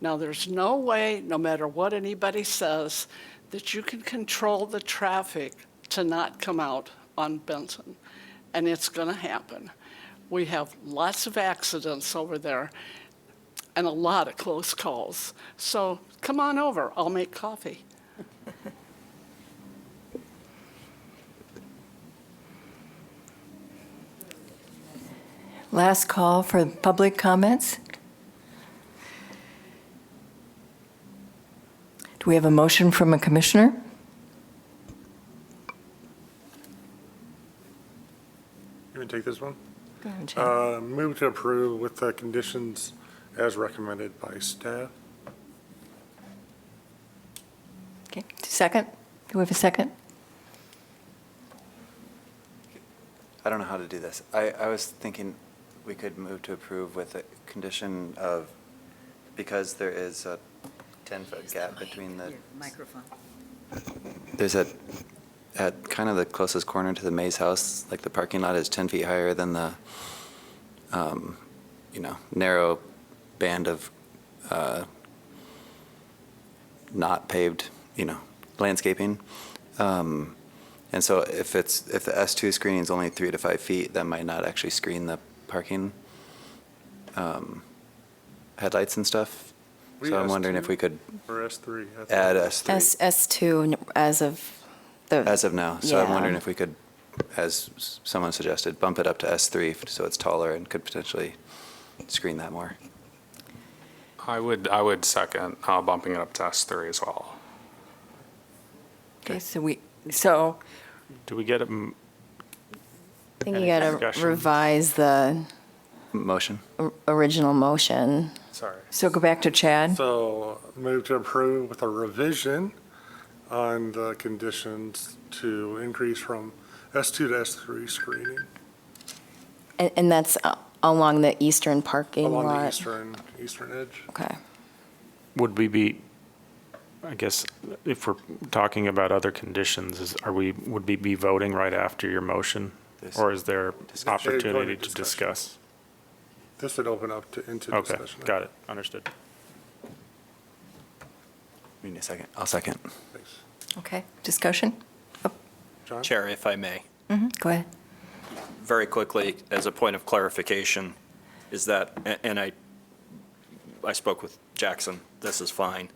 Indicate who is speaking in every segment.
Speaker 1: Now, there's no way, no matter what anybody says, that you can control the traffic to not come out on Benson, and it's going to happen. We have lots of accidents over there and a lot of close calls. So come on over, I'll make coffee.
Speaker 2: Last call for public comments. Do we have a motion from a commissioner?
Speaker 3: You want to take this one?
Speaker 2: Go ahead, Jay.
Speaker 3: Uh, Move to approve with the conditions as recommended by staff.
Speaker 2: Okay. Second? Do we have a second?
Speaker 4: I don't know how to do this. I, I was thinking we could move to approve with a condition of, because there is a 10-foot gap between the,
Speaker 5: Your Microphone.
Speaker 4: there's a, at kind of the closest corner to the Mays house, like the parking lot is 10 feet higher than the, um, you know, narrow band of uh, not paved, you know, landscaping. Um, And so if it's, if the S2 screening is only three to five feet, that might not actually screen the parking um, headlights and stuff.
Speaker 3: We
Speaker 4: So I'm wondering
Speaker 3: S2?
Speaker 4: if we could
Speaker 3: Or S3. I think.
Speaker 4: add S3
Speaker 6: S, S2 n- as of the.
Speaker 4: as of now. So I'm
Speaker 6: Yeah.
Speaker 4: wondering if we could, as s- someone suggested, bump it up to S3 so it's taller and could potentially screen that more.
Speaker 7: I would, I would second uh, bumping it up to S3 as well.
Speaker 2: Okay, so we, so,
Speaker 7: Do we get a, m-
Speaker 6: I think you
Speaker 7: Any
Speaker 6: got to
Speaker 7: discussion?
Speaker 6: revise the
Speaker 4: Motion?
Speaker 6: or- original motion.
Speaker 7: sorry.
Speaker 2: so go back to Chad.
Speaker 3: So move to approve with a revision on the conditions to increase from S2 to S3 screening
Speaker 6: And, and that's a- along the eastern parking lot.
Speaker 3: along the eastern, eastern edge.
Speaker 6: Okay.
Speaker 8: Would we be, I guess, if we're talking about other conditions, is, are we, would we be voting right after your motion?
Speaker 4: This-
Speaker 8: Or is there
Speaker 4: Discussion.
Speaker 8: opportunity to
Speaker 3: Discussion.
Speaker 8: discuss?
Speaker 3: This would open up to, into
Speaker 8: Okay,
Speaker 3: discussion.
Speaker 8: got it, understood.
Speaker 4: We need a second. I'll second.
Speaker 3: Thanks.
Speaker 2: Okay, discussion?
Speaker 3: John?
Speaker 9: Chair, if I may,
Speaker 2: Mhm, Go ahead.
Speaker 9: very quickly, as a point of clarification, is that, a- and I, I spoke with Jackson, this is fine,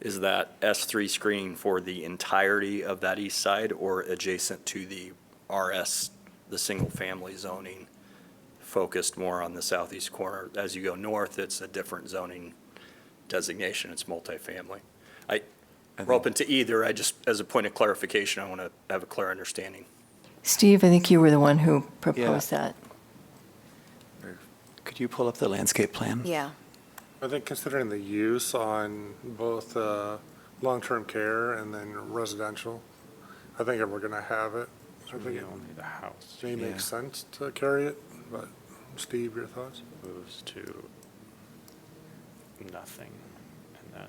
Speaker 9: is that S3 screening for the entirety of that east side or adjacent to the RS, the single-family zoning, focused more on the southeast corner? As you go north, it's a different zoning designation, it's multifamily. I, we're open to either, I just, as a point of clarification, I want to have a clear understanding.
Speaker 2: Steve, I think you were the one who proposed that.
Speaker 4: Could you pull up the landscape plan?
Speaker 6: Yeah.
Speaker 3: I think considering the use on both uh, long-term care and then residential, I think if we're going to have it, I think it
Speaker 8: Only the house
Speaker 3: may
Speaker 4: Yeah.
Speaker 3: make sense to carry it, but Steve, your thoughts?
Speaker 8: moves to nothing, and then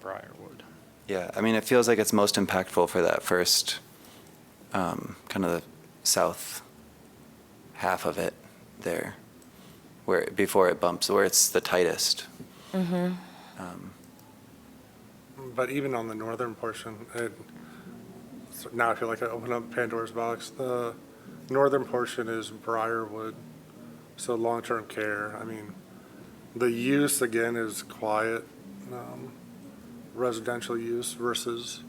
Speaker 8: Briarwood.
Speaker 4: Yeah, I mean, it feels like it's most impactful for that first, um, kind of the south half of it there, where, before it bumps, where it's the tightest.
Speaker 6: Mm-hmm.
Speaker 4: Um,
Speaker 3: But even on the northern portion, it, so now I feel like I opened up Pandora's box. The northern portion is Briarwood, so long-term care. I mean, the use again is quiet, um, residential use versus.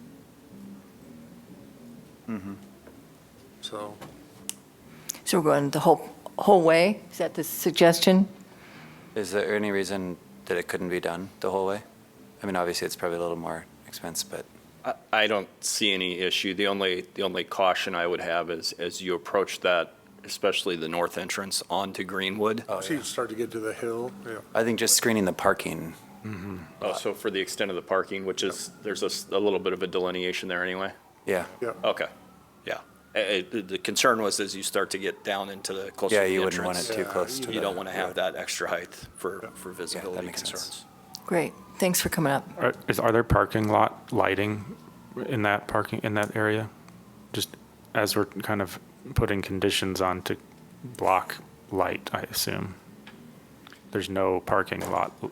Speaker 3: So
Speaker 2: So we're going the whole, whole way? Is that the suggestion?
Speaker 4: Is there any reason that it couldn't be done the whole way? I mean, obviously, it's probably a little more expense, but
Speaker 9: I- I don't see any issue. The only, the only caution I would have is, as you approach that, especially the north entrance onto Greenwood.
Speaker 4: Oh,
Speaker 3: so you start to get to the hill, yeah.
Speaker 4: I think just screening the parking,
Speaker 9: Oh, So for the extent of the parking, which is, there's a, s- a little bit of a delineation there anyway?
Speaker 4: yeah.
Speaker 3: Yeah.
Speaker 9: Okay, yeah. Eh, eh, The the concern was as you start to get down into the closer to
Speaker 4: Yeah,
Speaker 9: the
Speaker 4: you wouldn't want
Speaker 9: entrance,
Speaker 4: it too
Speaker 3: Yeah,
Speaker 4: close to the.
Speaker 9: You don't want to have
Speaker 4: road.
Speaker 9: that extra height for, for visibility
Speaker 4: makes sense.
Speaker 9: concerns.
Speaker 2: Great, thanks for coming up.
Speaker 8: Are, is, are there parking lot lighting in that parking, in that area? Just as we're kind of putting conditions on to block light, I assume. There's no parking lot